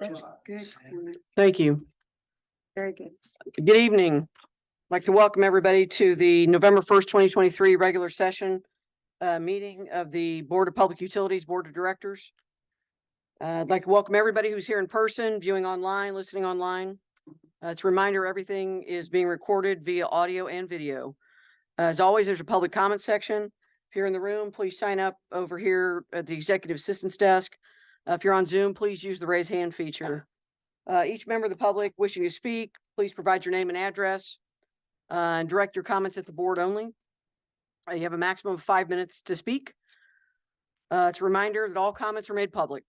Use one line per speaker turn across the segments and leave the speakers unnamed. That's good. Gwen.
Thank you.
Very good.
Good evening. I'd Like to welcome everybody to the November first, twenty twenty-three regular session uh, meeting of the Board of Public Utilities Board of Directors. Uh, I'd like to welcome everybody who's here in person, viewing online, listening online. Uh, It's a reminder, everything is being recorded via audio and video. Uh, As always, there's a public comment section. If you're in the room, please sign up over here at the Executive Assistance Desk. Uh, If you're on Zoom, please use the raise hand feature. Uh, each member of the public wishing to speak, please provide your name and address. Uh, and direct your comments at the board only. Uh, You have a maximum of five minutes to speak. Uh, it's a reminder that all comments are made public.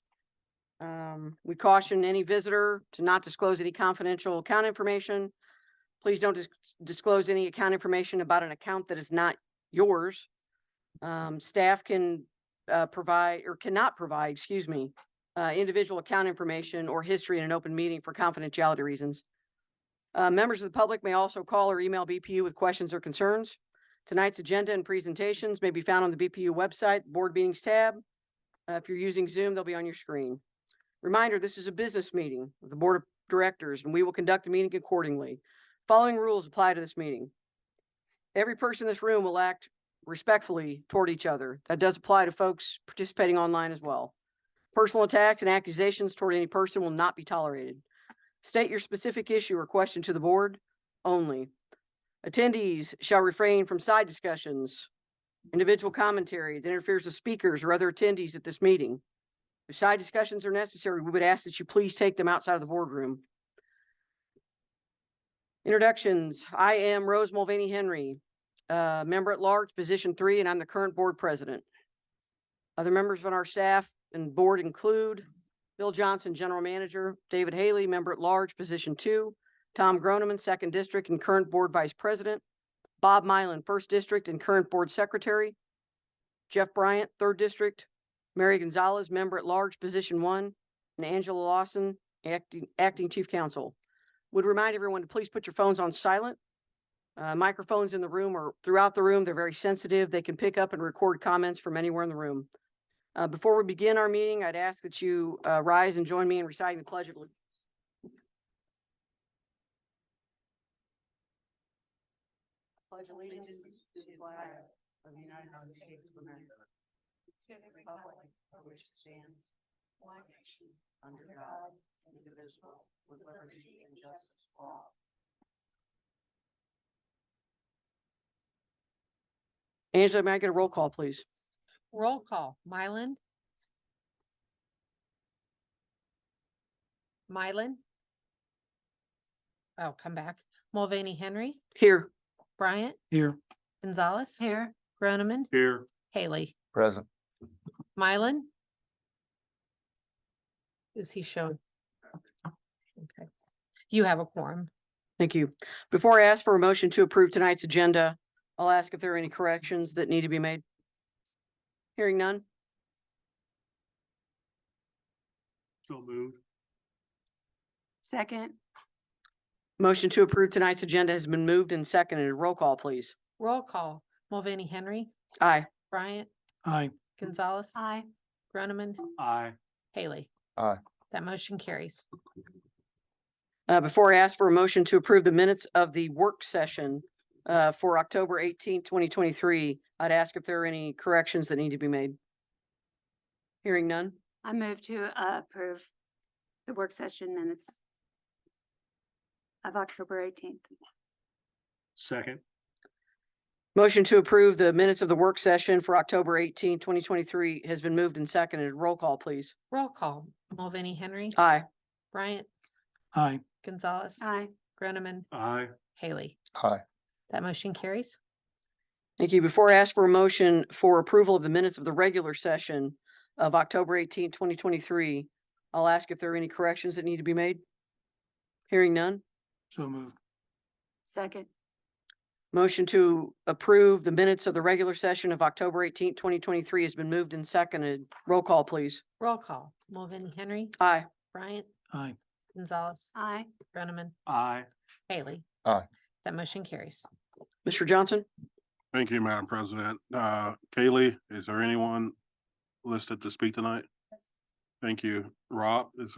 Um, we caution any visitor to not disclose any confidential account information. Please don't dis- disclose any account information about an account that is not yours. Um, staff can, uh, provide, or cannot provide, excuse me, uh, individual account information or history in an open meeting for confidentiality reasons. Uh, members of the public may also call or email BPU with questions or concerns. Tonight's agenda and presentations may be found on the BPU website, Board Meetings tab. Uh, if you're using Zoom, they'll be on your screen. Reminder, this is a business meeting of the Board of Directors, and we will conduct the meeting accordingly. Following rules apply to this meeting. Every person in this room will act respectfully toward each other. That does apply to folks participating online as well. Personal attacks and accusations toward any person will not be tolerated. State your specific issue or question to the board only. Attendees shall refrain from side discussions, individual commentary that interferes with speakers or other attendees at this meeting. If side discussions are necessary, we would ask that you please take them outside of the boardroom. Introductions. I am Rose Mulvaney Henry, uh, member at large, position three, and I'm the current board president. Other members of our staff and board include Bill Johnson, General Manager, David Haley, Member at Large, Position Two, Tom Groneman, Second District and current Board Vice President, Bob Mylan, First District and current Board Secretary, Jeff Bryant, Third District, Mary Gonzalez, Member at Large, Position One, and Angela Lawson, Acting, Acting Chief Counsel. Would remind everyone to please put your phones on silent. Uh, microphones in the room or throughout the room, they're very sensitive. They can pick up and record comments from anywhere in the room. Uh, before we begin our meeting, I'd ask that you, uh, rise and join me in reciting the pledge of allegiance. Pledge allegiance to the flag of the United States of America. To the republic for which it stands, one nation, under God, indivisible, with liberty and justice for all. Angela, may I get a roll call, please?
Roll call, Mylan. Mylan. Oh, come back. Mulvaney Henry,
Here.
Bryant,
Here.
Gonzalez,
Here,
Groneman,
Here.
Haley,
Present.
Mylan. Is he showing? Okay, you have a quorum.
Thank you. Before I ask for a motion to approve tonight's agenda, I'll ask if there are any corrections that need to be made. Hearing none.
So moved.
second,
Motion to approve tonight's agenda has been moved and seconded. Roll call, please.
Roll call, Mulvaney Henry,
Aye.
Bryant,
Aye.
Gonzalez,
aye,
Groneman,
Aye.
Haley.
Aye.
That motion carries.
Uh, before I ask for a motion to approve the minutes of the work session uh, for October eighteenth, twenty twenty-three, I'd ask if there are any corrections that need to be made. Hearing none.
I move to uh, approve the work session minutes of October eighteenth.
Second.
Motion to approve the minutes of the work session for October eighteenth, twenty twenty-three has been moved and seconded. Roll call, please.
Roll call, Mulvaney Henry,
Aye.
Bryant,
Aye.
Gonzalez,
Aye,
Groneman,
Aye.
Haley.
Aye.
That motion carries.
Thank you. Before I ask for a motion for approval of the minutes of the regular session of October 18, 2023, I'll ask if there are any corrections that need to be made. Hearing none.
So moved.
second,
Motion to approve the minutes of the regular session of October 18, 2023 has been moved and seconded. Roll call, please.
Roll call. Mulvaney Henry,
Aye.
Bryant,
Aye.
Gonzalez,
aye,
Groneman,
Aye.
Haley.
Aye.
That motion carries.
Mr. Johnson?
Thank you, Madam President. Uh, Kaylee, is there anyone listed to speak tonight? Thank you. Rob, is